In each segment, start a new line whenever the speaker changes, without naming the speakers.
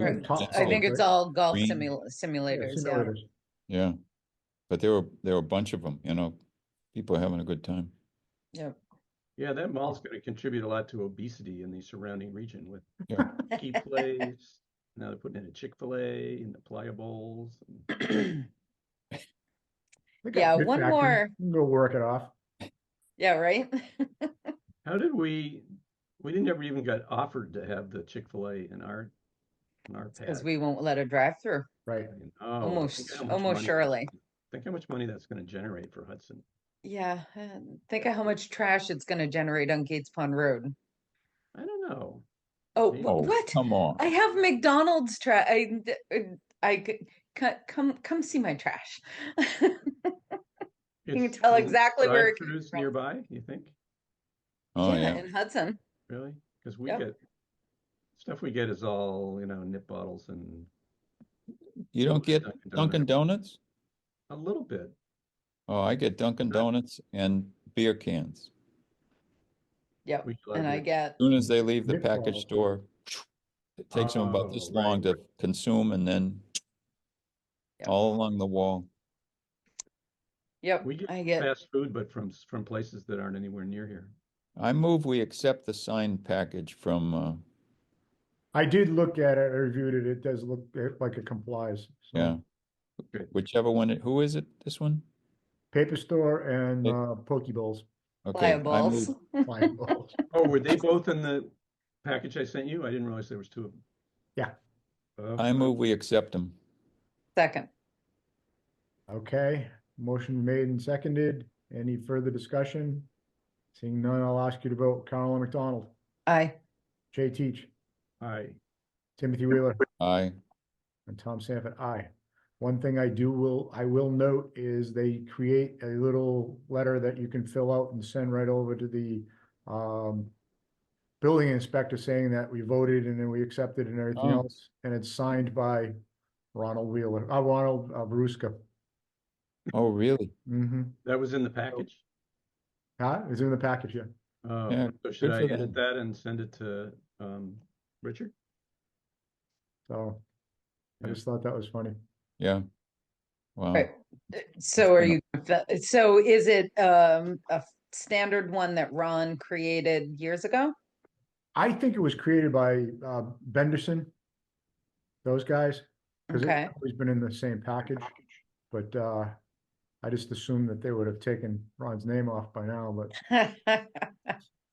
Right.
Tom-
I think it's all golf
Green.
simul- simulators, yeah.
Simulators.
Yeah, but there were, there were a bunch of them, you know, people are having a good time.
Yep.
Yeah, that mall's gonna contribute a lot to obesity in the surrounding region with
Yeah.
key plays. Now they're putting in a Chick-fil-A and the Playa Bowls. and-
They got
Yeah,
good
one
back end.
more.
You can Go work it off.
Yeah, right?
How did we, we didn't ever even get offered to have the Chick-fil-A in our, in our
Because
pad.
we won't let her drive through,
Right.
And, oh, think
almost,
how much
almost
money-
surely.
Think how much money that's gonna generate for Hudson.
Yeah, and think of how much trash it's gonna generate on Gates Pond Road.
I don't know.
Oh,
Maybe.
wh-
Oh,
what?
Come on.
I have McDonald's trash. I, d- uh, I, c- c- come, come see my trash.
You
can tell exactly where it came
Drive-throughs
from.
nearby, you think?
Oh, yeah.
In Hudson.
Really? Because we
Yep.
get, stuff we get is all, you know, nip bottles and
You don't get Dunkin'
Donuts.
Donuts?
A little bit.
Oh, I get Dunkin'
Not-
Donuts and beer cans.
Yep.
We love
And I
you.
get,
Soon as they leave the
Nick
package
balls.
store, it takes them about this
Oh, right.
long to consume and then
Yeah.
all along the wall.
yep,
We get
I get,
fast food, but from s- from places that aren't anywhere near here.
I move we accept the signed package from, uh,
I did look at it, I reviewed it. It does look it- like it complies. So
yeah. Oh,
Good.
Whichever one, it- who is it, this one?
Paper store and
Hey.
uh, Pokeballs.
Okay, I
pliables.
move-
Flying balls.
Oh, were they both in the package I sent you? I didn't realize there was two of them.
Yeah.
Oh,
I move we accept them.
Second,
Okay, motion made and seconded. Any further discussion? Seeing none, I'll ask you to vote. Carolyn McDonald,
I,
Jay Teach,
Aye.
Timothy Wheeler.
Aye.
And Tom Sanford, aye. One thing I do will, I will note is they create a little letter that you can fill out and send right over to the um. Building inspector saying that we voted and then we accepted and everything
Oh.
else, and it's signed by Ronald Wheeler, uh, Ronald uh, Veruska.
Oh, really?
Mm-hmm.
That was in
Oh.
the package?
Huh? It's in the package, yeah.
Oh,
Yeah,
so should
good
I
for
edit
them.
that and send it to um Richard?
So. I
Yeah.
just thought that was funny.
Yeah. Wow.
Right. Uh, so are
gonna-
you, fe- so is it, um, a f- standard one that Ron created years ago?
I think it was created by uh Benderson. Those guys, because
Okay.
it's always been in the same package. But uh I just assumed that they would have taken Ron's name off by now, but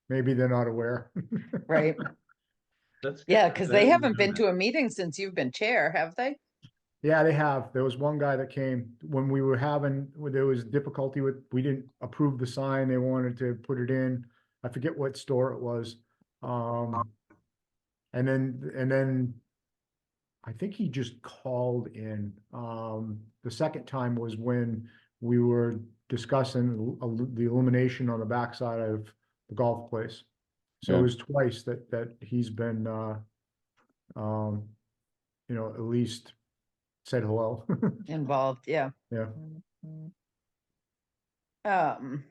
maybe they're not aware.
Right,
That's.
yeah,
good.
because
I
they
didn't
haven't
know
been
that.
to a meeting since you've been chair, have they?
Yeah, they have. There was one guy that came when we were having, when there was difficulty with, we didn't approve the sign. They wanted to put it in. I forget what store it was. Um, and then, and then I think he just called in. Um, the second time was when we were discussing the il- the illumination on the backside of the golf place. So it
Yeah.
was twice that, that he's been, uh, um, you know, at least said hello.
Involved, yeah. Mm-hmm.
Yeah.
Um.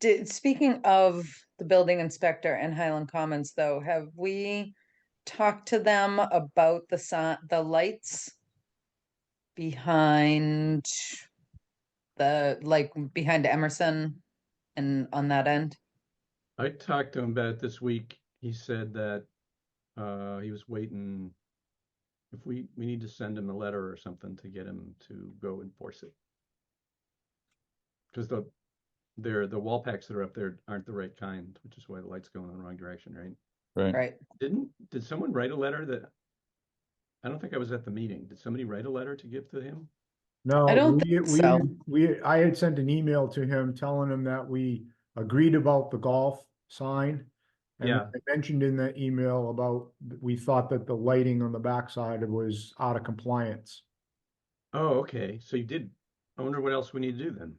Did, speaking of the building inspector and Highland Commons though, have we talked to them about the sign, the lights? Behind the, like, behind Emerson and on that end?
I talked to him about it this week. He said that uh he was waiting. If we, we need to send him a letter or something to get him to go enforce it. Because the, they're, the wall packs that are up there aren't the right kind, which is why the light's going in the wrong direction, right?
Right.
Right,
Didn't, did someone write a letter that? I don't think I was at the meeting. Did somebody write a letter to give to him?
No,
I don't
we,
think
we-
so.
We, I had sent an email to him telling him that we agreed about the golf sign. And
Yeah.
I mentioned in that email about, th- we thought that the lighting on the backside was out of compliance.
Oh, okay, so you did. I wonder what else we need to do then?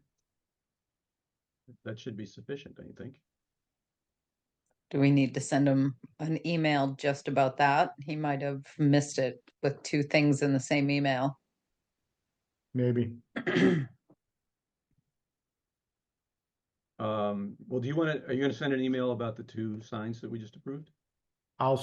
That should be sufficient, don't you think?
do we need to send him an email just about that? He might have missed it with two things in the same email.
Maybe.
Um, well, do you want to, are you going to send an email about the two signs that we just approved?
I'll